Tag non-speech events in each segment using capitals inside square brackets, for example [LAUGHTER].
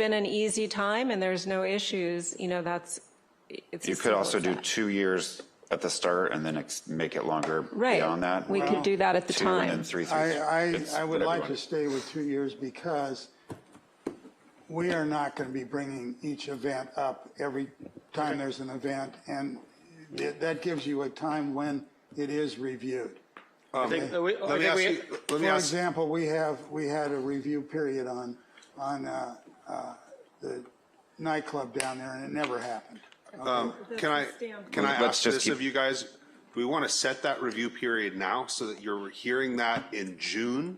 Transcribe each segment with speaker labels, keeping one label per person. Speaker 1: been an easy time and there's no issues, you know, that's, it's.
Speaker 2: You
Speaker 1: as
Speaker 2: could
Speaker 1: simple
Speaker 2: also
Speaker 1: as
Speaker 2: do
Speaker 1: that.
Speaker 2: two years at the start and then ex- make it longer
Speaker 1: Right.
Speaker 2: beyond that.
Speaker 1: We could do that at the
Speaker 2: Two and then
Speaker 1: time.
Speaker 2: three, three.
Speaker 3: I,
Speaker 2: It's
Speaker 3: I, I would
Speaker 2: whatever you
Speaker 3: like
Speaker 2: want.
Speaker 3: to stay with two years because we are not going to be bringing each event up every time there's an event. And th- that gives you a time when it is reviewed.
Speaker 4: I think, we- I
Speaker 5: Let me
Speaker 4: think
Speaker 5: ask
Speaker 4: we-
Speaker 5: you, let me
Speaker 3: For
Speaker 5: ask,
Speaker 3: example, we have, we had a review period on, on uh, uh, the nightclub down there and it never happened.
Speaker 5: um, can I, can I
Speaker 2: Let's
Speaker 5: ask
Speaker 2: just
Speaker 5: this
Speaker 2: keep-
Speaker 5: of you guys? Do we want to set that review period now so that you're hearing that in June?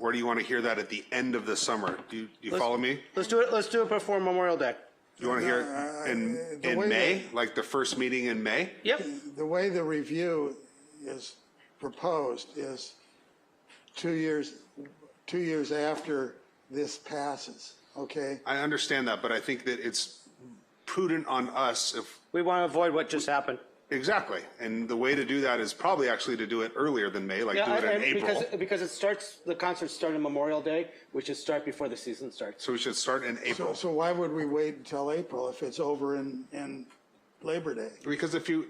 Speaker 5: Or do you want to hear that at the end of the summer? Do you, do you follow me?
Speaker 4: let's do it, let's do it before Memorial Day.
Speaker 5: You want to hear it in,
Speaker 3: the
Speaker 5: in
Speaker 3: way
Speaker 5: May,
Speaker 3: that-
Speaker 5: like the first meeting in May?
Speaker 4: Yep,
Speaker 3: The way the review is proposed is two years, two years after this passes, okay?
Speaker 5: I understand that, but I think that it's prudent on us if,
Speaker 4: we want to avoid what just happened.
Speaker 5: exactly. And the way to do that is probably actually to do it earlier than May, like do it in April.
Speaker 4: Because, because it starts, the concerts start on Memorial Day, which is start before the season starts.
Speaker 5: So we should start in
Speaker 3: So,
Speaker 5: April.
Speaker 3: so why would we wait until April if it's over in, in Labor Day?
Speaker 5: Because if you,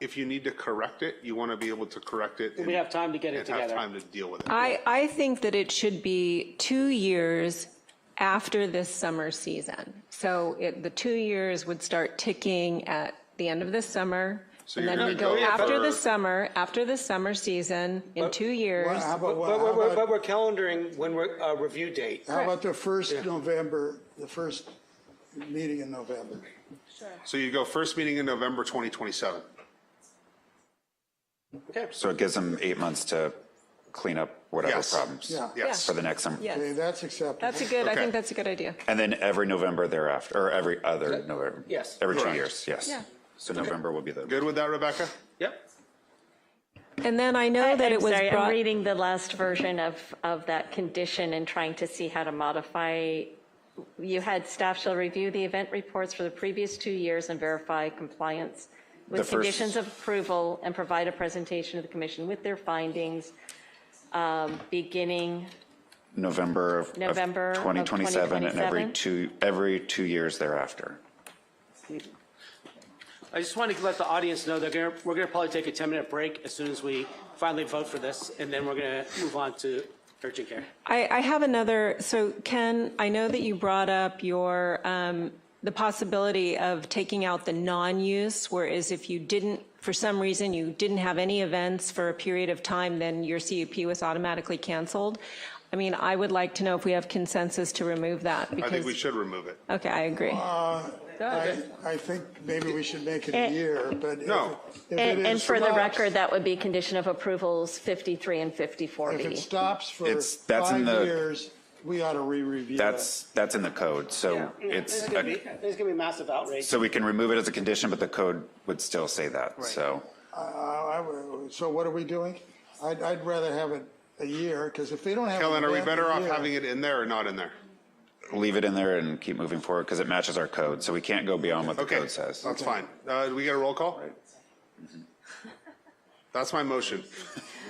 Speaker 5: if you need to correct it, you want to be able to correct it.
Speaker 4: We have time to get it
Speaker 5: And have
Speaker 4: together.
Speaker 5: time to deal with it.
Speaker 1: I, I think that it should be two years after this summer season. So it, the two years would start ticking at the end of this summer. And
Speaker 5: you're
Speaker 1: then we
Speaker 5: gonna
Speaker 1: go
Speaker 5: go
Speaker 1: after the
Speaker 5: for-
Speaker 1: summer, after the summer season, in two years.
Speaker 3: How
Speaker 4: But
Speaker 3: about,
Speaker 4: we're,
Speaker 3: how
Speaker 4: we're- but
Speaker 3: about,
Speaker 4: we're calendaring when we're, uh, review date.
Speaker 3: how about the first November, the first meeting in November?
Speaker 5: So you go first meeting in November 2027.
Speaker 2: So it gives them eight months to clean up whatever
Speaker 5: Yes.
Speaker 2: problems.
Speaker 3: Yeah.
Speaker 5: Yes.
Speaker 2: For the next summer.
Speaker 1: Yes.
Speaker 3: Okay, that's acceptable.
Speaker 1: That's a good, I
Speaker 5: Okay.
Speaker 1: think that's a good idea.
Speaker 2: And then every November thereafter, or every other November.
Speaker 4: Yes.
Speaker 2: Every two
Speaker 5: Correct.
Speaker 2: years, yes.
Speaker 1: Yeah.
Speaker 2: So November will be the,
Speaker 5: Good with that, Rebecca?
Speaker 4: Yep.
Speaker 1: And then I know that
Speaker 6: I'm
Speaker 1: it was
Speaker 6: sorry, I'm
Speaker 1: brought,
Speaker 6: reading the last version of, of that condition and trying to see how to modify. You had staff shall review the event reports for the previous two years and verify compliance
Speaker 2: The
Speaker 6: with
Speaker 2: first-
Speaker 6: conditions of approval and provide a presentation to the commission with their findings, um, beginning,
Speaker 2: November of. of
Speaker 6: November of
Speaker 2: 2027 and every
Speaker 6: 2027.
Speaker 2: two, every two years thereafter.
Speaker 4: I just want to let the audience know that we're gonna- we're going to probably take a 10-minute break as soon as we finally vote for this, and then we're going to move on to urgent care.
Speaker 1: I, I have another, so Ken, I know that you brought up your, um, the possibility of taking out the non-use, whereas if you didn't, for some reason, you didn't have any events for a period of time, then your CUP was automatically canceled. I mean, I would like to know if we have consensus to remove that
Speaker 5: I
Speaker 1: because.
Speaker 5: think we should remove it.
Speaker 1: Okay, I agree.
Speaker 3: Uh, I, I think maybe we should make it a year, but. if-
Speaker 5: No.
Speaker 3: if it
Speaker 6: eh, and, and
Speaker 3: is-
Speaker 6: for the record, that would be condition of approvals 53 and
Speaker 3: If it
Speaker 6: 54B.
Speaker 3: stops for
Speaker 2: It's- that's in
Speaker 3: five
Speaker 2: the-
Speaker 3: years, we ought to re-review that.
Speaker 2: That's, that's in the code, so it's,
Speaker 4: There's
Speaker 2: a-
Speaker 4: going to be, there's going to be massive outrage.
Speaker 2: so we can remove it as a condition, but the code would still say that, so.
Speaker 3: Uh, I- I would- So what are we doing? I'd, I'd rather have it a year, because if they don't have. an
Speaker 5: Helen, are we
Speaker 3: event in a
Speaker 5: better off
Speaker 3: year-
Speaker 5: having it in there or not in there?
Speaker 2: leave it in there and keep moving forward because it matches our code. So we can't go beyond what the
Speaker 5: Okay,
Speaker 2: code says.
Speaker 5: that's fine. Uh, do we get a roll call? That's my
Speaker 7: [LAUGHS]
Speaker 5: motion.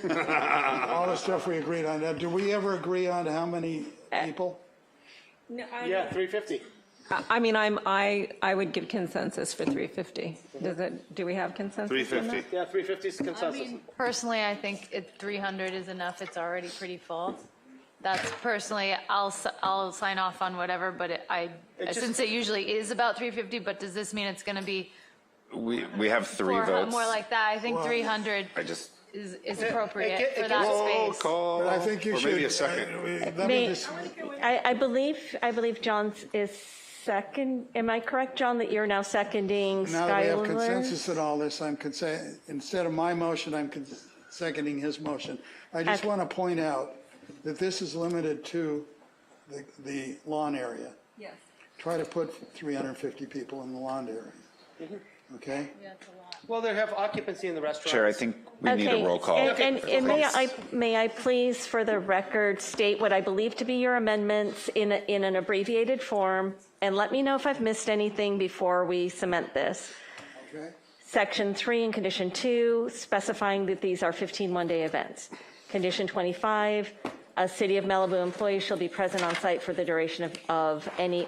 Speaker 3: All the stuff we agreed on. Now, Do we ever agree on how many people?
Speaker 4: Yeah, 350.
Speaker 1: I I mean, I'm, I, I would give consensus for 350. Does it, do we have consensus? on that?
Speaker 5: 350.
Speaker 4: Yeah, 350 is
Speaker 7: I
Speaker 4: consensus.
Speaker 7: mean, personally, I think it- 300 is enough, it's already pretty full. That's personally, I'll, s- I'll sign off on whatever, but it- I,
Speaker 4: just-
Speaker 7: since it usually is about 350, but does this mean it's going to be
Speaker 2: We, we have three
Speaker 7: more
Speaker 2: votes.
Speaker 7: more like that? I think
Speaker 3: Well,
Speaker 7: 300
Speaker 2: I just,
Speaker 7: is
Speaker 4: It
Speaker 7: is
Speaker 4: gi-
Speaker 7: appropriate
Speaker 4: it
Speaker 7: for that
Speaker 4: gives-
Speaker 5: Roll
Speaker 7: space.
Speaker 5: call.
Speaker 3: But I think you
Speaker 5: Or
Speaker 3: should.
Speaker 5: maybe a second.
Speaker 3: uh, we- Let me
Speaker 6: May-
Speaker 3: just,
Speaker 6: I, I believe, I believe John is second, am I correct, John, that you're now seconding
Speaker 3: now that we have
Speaker 6: Skylar?
Speaker 3: consensus in all this, I'm consen, instead of my motion, I'm cons- seconding his motion. I just
Speaker 6: Okay.
Speaker 3: want to point out that this is limited to the, the lawn area. Yes. Try to put 350 people in the lawn area. Okay?
Speaker 4: Well, they have occupancy in the restaurant.
Speaker 2: Chair, I think we need
Speaker 6: Okay,
Speaker 2: a roll call.
Speaker 6: And, and- and may I, may I please, for the record, state what I believe to be your amendments in, a- in an abbreviated form, and let me know if I've missed anything before we cement this.
Speaker 3: Okay?
Speaker 6: Section 3 and Condition 2, specifying that these are 15 one-day events. Condition 25, A City of Malibu employee shall be present on site for the duration of, of any